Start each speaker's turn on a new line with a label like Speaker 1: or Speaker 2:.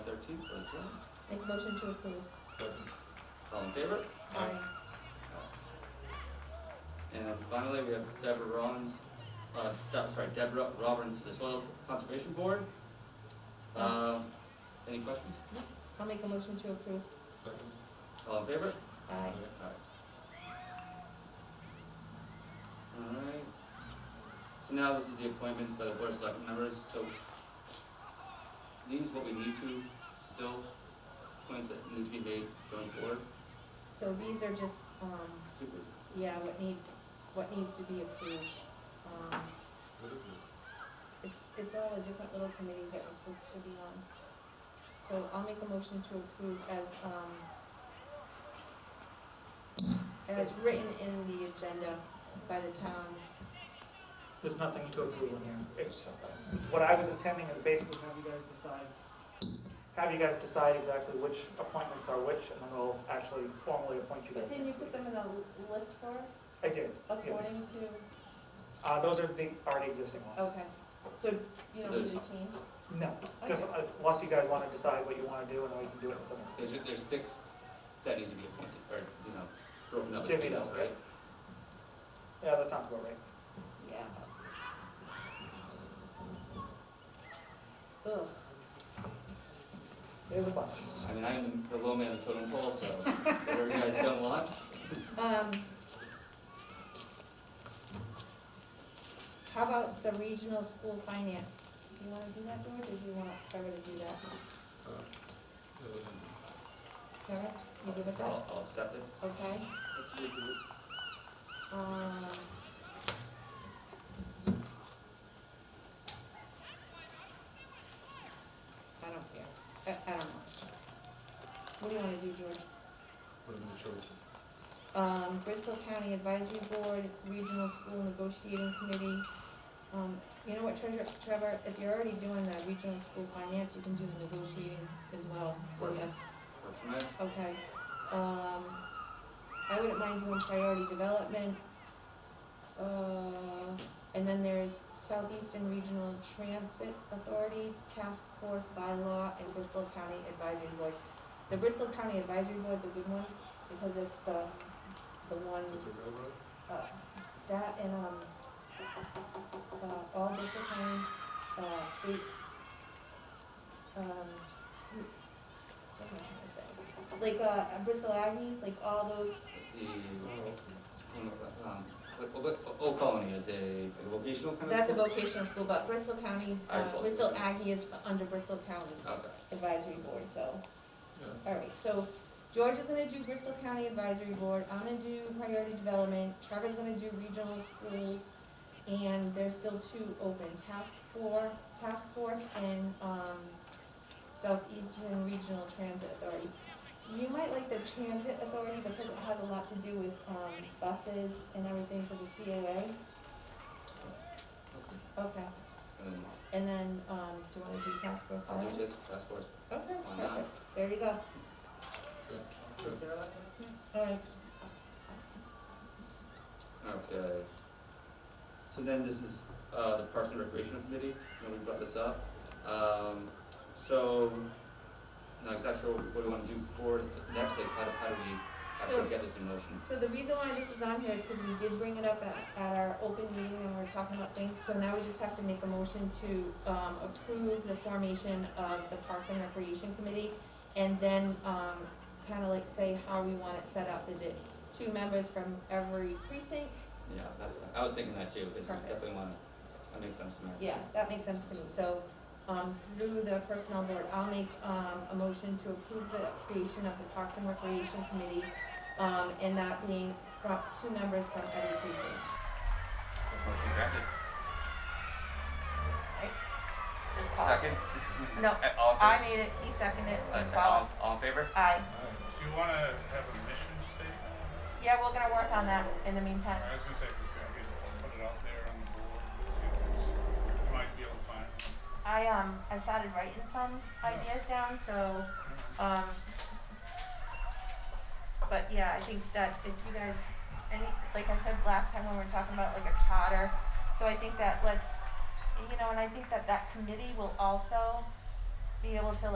Speaker 1: Make motion to approve.
Speaker 2: Second. All in favor?
Speaker 1: Aye.
Speaker 2: And then finally, we have Deborah Rollins, uh, De- sorry, Deborah Robbins to the Soil Conservation Board. Um, any questions?
Speaker 1: I'll make a motion to approve.
Speaker 2: All in favor?
Speaker 1: Aye.
Speaker 2: Alright. Alright. So now this is the appointment by the board of select members, so these what we need to still, points that need to be made going forward.
Speaker 1: So these are just, um,
Speaker 2: Super.
Speaker 1: yeah, what need, what needs to be approved. Um, It's, it's all the different little committees that we're supposed to be on. So I'll make a motion to approve as, um, as written in the agenda by the town.
Speaker 3: There's nothing to approve in here. It's- What I was intending is basically have you guys decide, have you guys decide exactly which appointments are which, and then we'll actually formally appoint you
Speaker 4: But
Speaker 3: guys
Speaker 4: didn't you
Speaker 3: next
Speaker 4: put
Speaker 3: week.
Speaker 4: them in a l- list for us,
Speaker 3: I did.
Speaker 4: according to,
Speaker 3: Uh, those are the already existing ones.
Speaker 1: Okay, so you
Speaker 2: So
Speaker 1: don't need
Speaker 2: there's-
Speaker 1: to change?
Speaker 3: No, just uh, unless you guys want to decide what you want to do, and then we can do it at the next
Speaker 2: There's,
Speaker 3: meeting.
Speaker 2: there's six that need to be appointed, or, you know, broken up
Speaker 3: Give
Speaker 2: into
Speaker 3: me
Speaker 2: details,
Speaker 3: those,
Speaker 2: right?
Speaker 3: Yeah, that sounds about right.
Speaker 1: Yeah. Ugh,
Speaker 3: There's a bunch.
Speaker 2: I mean, I'm the low man of the totem pole, so whatever you guys don't want,
Speaker 1: um. How about the regional school finance? Do you wanna do that, George, or do you want Trevor to do that? Trevor, you good with that?
Speaker 2: I'll, I'll accept it.
Speaker 1: Okay, um. I don't care, I, I don't know. What do you wanna do, George? um, Bristol County Advisory Board, Regional School Negotiating Committee. Um, you know what, Treasurer, Trevor, if you're already doing the regional school finance, you can do the negotiating as well, so
Speaker 2: Sure.
Speaker 1: yeah,
Speaker 2: Work for me.
Speaker 1: okay. Um, I wouldn't mind doing priority development. Uh, and then there's Southeastern Regional Transit Authority, Task Force by Law, and Bristol County Advisory Board. The Bristol County Advisory Board's a good one, because it's the, the one uh, that and, um, uh, all Bristol County, uh, state, um, what am I trying to say? Like, uh, Bristol Aggie, like all those,
Speaker 2: The, um, what, what, Old Colony is a a vocational kind of?
Speaker 1: that's a
Speaker 2: school?
Speaker 1: vocational school, but Bristol County,
Speaker 2: Alright,
Speaker 1: uh,
Speaker 2: cool.
Speaker 1: Bristol Aggie is under Bristol County
Speaker 2: Okay,
Speaker 1: Advisory Board, so. All right, so George is gonna do Bristol County Advisory Board, I'm gonna do priority development, Trevor's gonna do regional schools, and there's still two open, task for, task force and, um, Southeastern Regional Transit Authority. You might like the transit authority because it has a lot to do with, um, buses and everything for the CAA.
Speaker 2: okay.
Speaker 1: Okay,
Speaker 2: And then
Speaker 1: and then, um, do you wanna do task force?
Speaker 2: I'll do
Speaker 1: bylaw?
Speaker 2: this, task force.
Speaker 1: Okay,
Speaker 2: Why not?
Speaker 1: perfect, there you go, all right.
Speaker 2: Okay. So then this is, uh, the Parks and Recreation Committee, you know, we brought this up. Um, so, not exactly sure what we wanna do for the next, like, how do, how do we
Speaker 1: So-
Speaker 2: actually get this in motion?
Speaker 1: So the reason why this is on here is because we did bring it up at, at our open meeting and we are talking about things, so now we just have to make a motion to, um, approve the formation of the Parks and Recreation Committee, and then, um, kinda like say how we want it set up, is it two members from every precinct?
Speaker 2: Yeah, that's, I was thinking that too, but
Speaker 1: Perfect.
Speaker 2: we definitely wanna, that makes sense to me.
Speaker 1: Yeah, that makes sense to me, so, um, through the personnel board, I'll make, um, a motion to approve the creation of the Parks and Recreation Committee, um, and that being from, two members from every precinct.
Speaker 2: Motion granted.
Speaker 1: Bob.
Speaker 2: Second?
Speaker 1: No,
Speaker 2: Uh, All in favor?
Speaker 1: I made it, he seconded it,
Speaker 2: Uh,
Speaker 1: and
Speaker 2: so
Speaker 1: Bob,
Speaker 2: All, all in favor?
Speaker 1: aye.
Speaker 5: Do you want to have a mission statement?
Speaker 1: Yeah, we're gonna work on that in the meantime.
Speaker 5: I was going to say, if we could get, put it out there on the board, see if there's- you might be able to find one.
Speaker 1: I, um, I started writing some ideas down, so, um, but yeah, I think that if you guys, any, like I said last time when we were talking about like a charter, so I think that let's, you know, and I think that that committee will also be able to